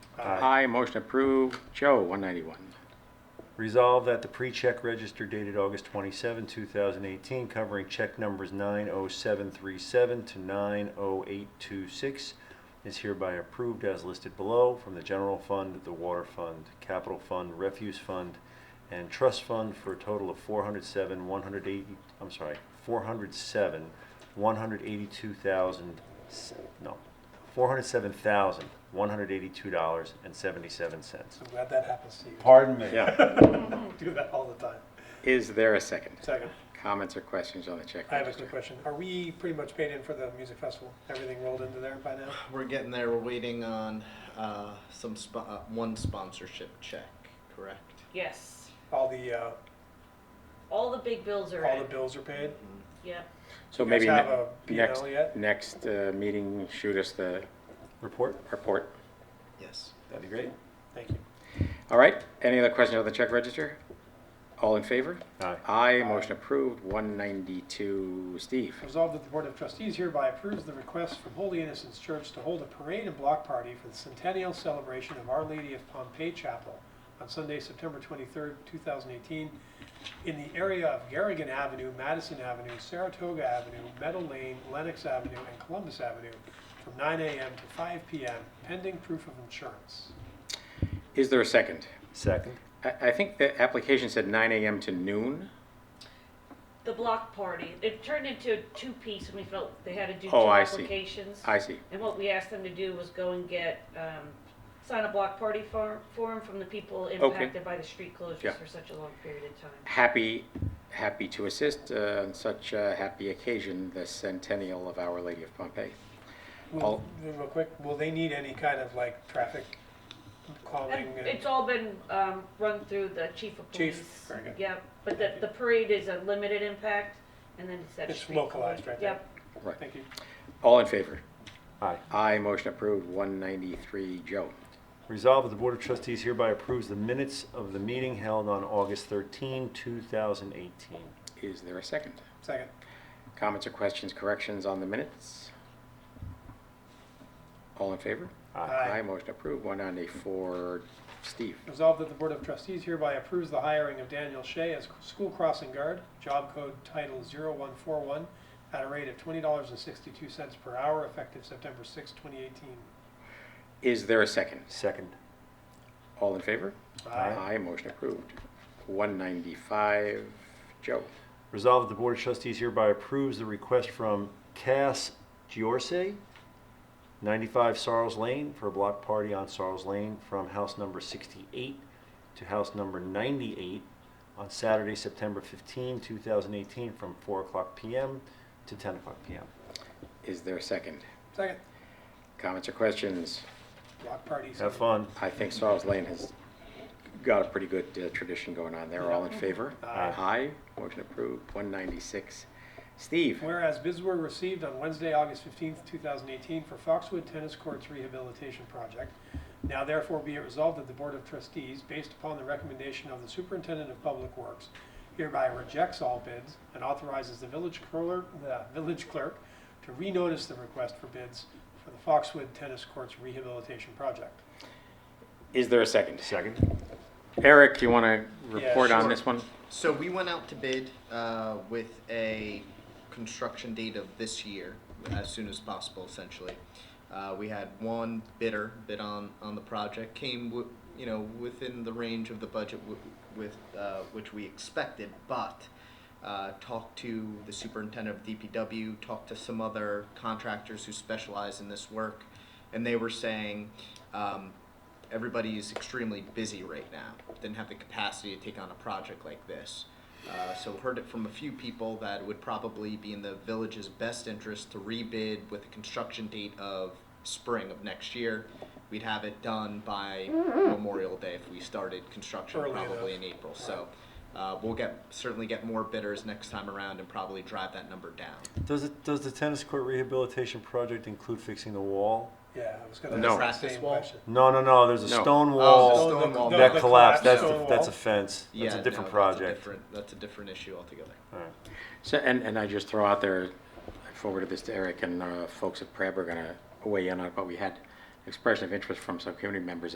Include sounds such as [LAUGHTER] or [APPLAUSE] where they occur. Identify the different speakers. Speaker 1: Aye, motion approved. Joe, 191.
Speaker 2: Resolved that the pre-check register dated August 27, 2018, covering check numbers 90737 to 90826 is hereby approved as listed below from the General Fund, the Water Fund, Capital Fund, Refuse Fund, and Trust Fund for a total of 407, 180, I'm sorry, 407, 182,000, no, $407,182.77.
Speaker 3: I'm glad that happens to you.
Speaker 4: Pardon me.
Speaker 1: Yeah.
Speaker 3: do that all the time.
Speaker 1: [LAUGHS] Is there a second?
Speaker 3: Second,
Speaker 1: Comments or questions on the check
Speaker 3: I have a
Speaker 1: register?
Speaker 3: quick question. Are we pretty much paid in for the music festival? Everything rolled into there by now?
Speaker 5: We're getting there. We're waiting on uh, some spo- uh, one sponsorship check, correct?
Speaker 6: Yes.
Speaker 3: All the, uh,
Speaker 6: All the big bills are
Speaker 3: all
Speaker 6: in.
Speaker 3: the bills are paid?
Speaker 6: Yep.
Speaker 1: So
Speaker 3: You guys
Speaker 1: maybe
Speaker 3: have
Speaker 1: ne-
Speaker 3: a P&L
Speaker 1: next,
Speaker 3: yet?
Speaker 1: next uh, meeting, shoot us the
Speaker 2: Report?
Speaker 1: report.
Speaker 5: Yes.
Speaker 2: That'd be great.
Speaker 3: Thank you.
Speaker 1: All right, any other questions on the check register? All in favor?
Speaker 2: Aye.
Speaker 1: Aye, motion approved. 192, Steve.
Speaker 3: Resolved that the Board of Trustees hereby approves the request from Holy Innocents Church to hold a parade and block party for the centennial celebration of Our Lady of Pompeii Chapel on Sunday, September 23rd, 2018, in the area of Garrigan Avenue, Madison Avenue, Saratoga Avenue, Meadow Lane, Lenox Avenue, and Columbus Avenue from 9 a.m. to 5 p.m., pending proof of insurance.
Speaker 1: Is there a second?
Speaker 2: Second.
Speaker 1: I, I think the application said 9 AM to noon.
Speaker 6: The block party. It turned into a two piece and we felt they had to do two
Speaker 1: Oh, I see.
Speaker 6: applications.
Speaker 1: I see.
Speaker 6: And what we asked them to do was go and get, um, sign a block party form, form from the people impacted by the street
Speaker 1: Yeah.
Speaker 6: closures for such a long period of time.
Speaker 1: Happy, happy to assist uh, on such a happy occasion, the centennial of Our Lady of Pompeii.
Speaker 3: Will,
Speaker 1: All-
Speaker 3: real quick, will they need any kind of like traffic calming?
Speaker 6: And
Speaker 3: and-
Speaker 6: It's all been, um, run through the chief of
Speaker 3: Chief,
Speaker 6: police.
Speaker 3: very good.
Speaker 6: Yep, but the, the parade is a limited impact and then it's that
Speaker 3: It's
Speaker 6: street
Speaker 3: localized
Speaker 6: closure.
Speaker 3: right there.
Speaker 6: Yep.
Speaker 3: Thank you.
Speaker 1: All in favor?
Speaker 2: Aye.
Speaker 1: Aye, motion approved, 193, Joe.
Speaker 2: Resolved that the Board of Trustees hereby approves the minutes of the meeting held on August 13, 2018.
Speaker 1: Is there a second?
Speaker 3: Second.
Speaker 1: Comments or questions, corrections on the minutes? All in favor?
Speaker 3: Aye.
Speaker 1: motion approved, 194, Steve.
Speaker 3: Resolved that the Board of Trustees hereby approves the hiring of Daniel Shea as school crossing guard, job code title 0141, at a rate of $20.62 per hour, effective September 6, 2018.
Speaker 1: Is there a second?
Speaker 2: Second.
Speaker 1: All in favor?
Speaker 2: Aye.
Speaker 1: motion approved, 195, Joe.
Speaker 2: Resolved that the Board of Trustees hereby approves the request from Cass Giorse, 95 Sarles Lane, for a block party on Sarles Lane from house number 68 to house number 98 on Saturday, September 15, 2018, from 4 o'clock PM to 10 o'clock PM.
Speaker 1: Is there a second?
Speaker 3: Second.
Speaker 1: Comments or questions?
Speaker 3: Block parties.
Speaker 2: Have fun.
Speaker 1: I think Sarles Lane has got a pretty good uh, tradition going on there. All in favor? Aye. Motion approved. 196. Steve,
Speaker 3: Whereas bids were received on Wednesday, August 15th, 2018 for Foxwood Tennis Courts Rehabilitation Project. Now therefore be it resolved that the Board of Trustees, based upon the recommendation of the Superintendent of Public Works, hereby rejects all bids and authorizes the village clerk, the village clerk to renotice the request for bids for the Foxwood Tennis Courts Rehabilitation Project.
Speaker 1: is there a second?
Speaker 2: Second.
Speaker 1: Eric, you want to
Speaker 3: Yeah,
Speaker 1: report on
Speaker 3: sure.
Speaker 1: this one?
Speaker 5: So we went out to bid uh, with a construction date of this year, as soon as possible, essentially. Uh, we had one bidder bid on, on the project, came w- you know within the range of the budget w- with uh, which we expected, but uh, talked to the superintendent of DPW, talked to some other contractors who specialize in this work, and they were saying um, everybody is extremely busy right now. Didn't have the capacity to take on a project like this. Uh, so heard it from a few people that it would probably be in the village's best interest to rebid with a construction date of spring of next year. We'd have it done by Memorial Day if we started construction
Speaker 3: Early
Speaker 5: probably
Speaker 3: enough.
Speaker 5: in April. So uh, we'll get certainly get more bidders next time around and probably drive that number down.
Speaker 2: Does it, does the tennis court rehabilitation project include fixing the wall?
Speaker 3: Yeah, I was gonna
Speaker 1: No.
Speaker 3: ask that
Speaker 5: Practice
Speaker 3: same
Speaker 5: wall?
Speaker 3: question.
Speaker 2: No, no, no, there's a
Speaker 1: No.
Speaker 2: stone
Speaker 5: Oh,
Speaker 2: wall
Speaker 5: the stone wall.
Speaker 3: No,
Speaker 2: that
Speaker 3: the
Speaker 2: collapsed, that's,
Speaker 3: collapsed
Speaker 2: a- that's a
Speaker 3: stone
Speaker 2: fence, that's a
Speaker 5: no,
Speaker 2: different
Speaker 5: That's a
Speaker 2: project.
Speaker 5: different, that's a different issue altogether.
Speaker 2: Alright.
Speaker 1: So, and, and I just throw out there, I forwarded this to Eric and uh, folks at Prab are going to weigh in on it, but we had expression of interest from some community members